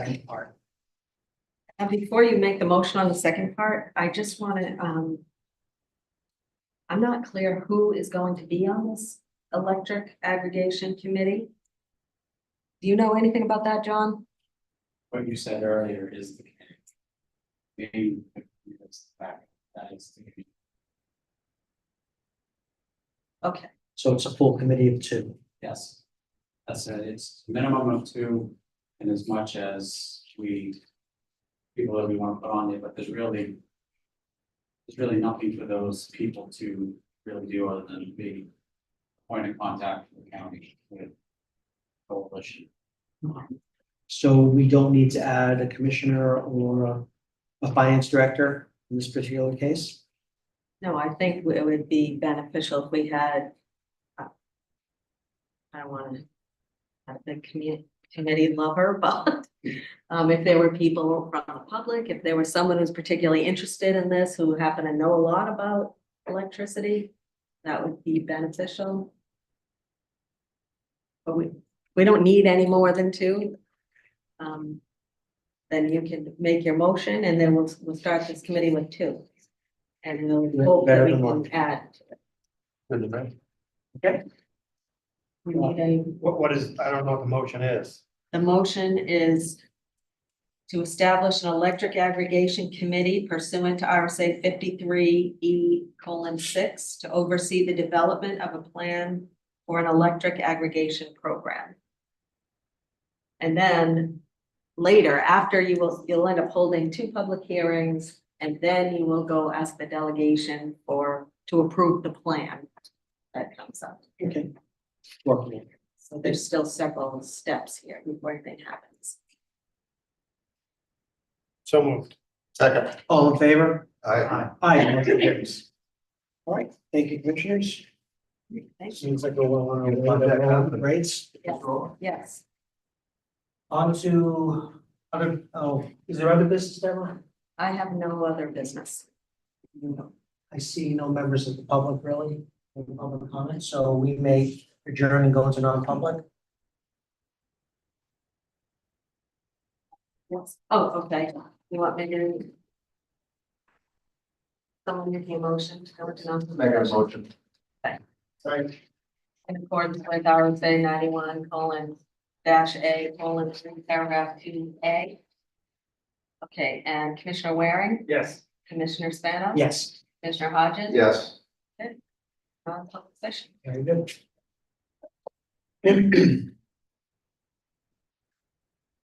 second part. And before you make the motion on the second part, I just wanna, um. I'm not clear who is going to be on this electric aggregation committee. Do you know anything about that, John? What you said earlier is the. Maybe. that's the fact, That is. the- Okay. So it's a full committee of two. Yes. That's it, it's minimum of two, and as much as we. People that we want to put on there, but there's really. There's really nothing for those people to really do other than be. Point of contact for the county with. Coalition, So we don't need to add a commissioner or a- a finance director in this particular case? No, I think it would be beneficial if we had. uh, I don't wanna. Have the commu- committee lover, but, um, if there were people from the public, if there was someone who's particularly interested in this, who happen to know a lot about electricity. That would be beneficial. But we, we don't need any more than two. Um. Then you can make your motion and then we'll, we'll start this committee with two. And then we'll hope that Better we than one. can add, Okay. we need a What, what is, I don't know what the motion is. The motion is to establish an electric aggregation committee pursuant to RSA fifty-three E colon six to oversee the development of a plan for an electric aggregation program. And then later, after you will, you'll end up holding two public hearings and then you will go ask the delegation for, to approve the plan that comes up. Okay. Working. So there's still several steps here before anything happens. So moved. Second. All in favor? I, Aye, motion carries. All right, thank you, commissioners. Thank you. Seems like we're well on You want that our way. company? Rates? Yes. Yes, On to other, oh, is there other business, Deborah? I have no other business. No. I see no members of the public really, in the public comment, so we may adjourn and go into non-public. Yes. Oh, okay. You want me to? Someone make a motion to go into make a non-public session motion. Right. in accordance with RSA ninety-one colon dash A colon three paragraph two A. Okay, and Commissioner Waring, Yes. Commissioner Spano? Yes. Commissioner Hodges? Yes. Non-public session. Very good.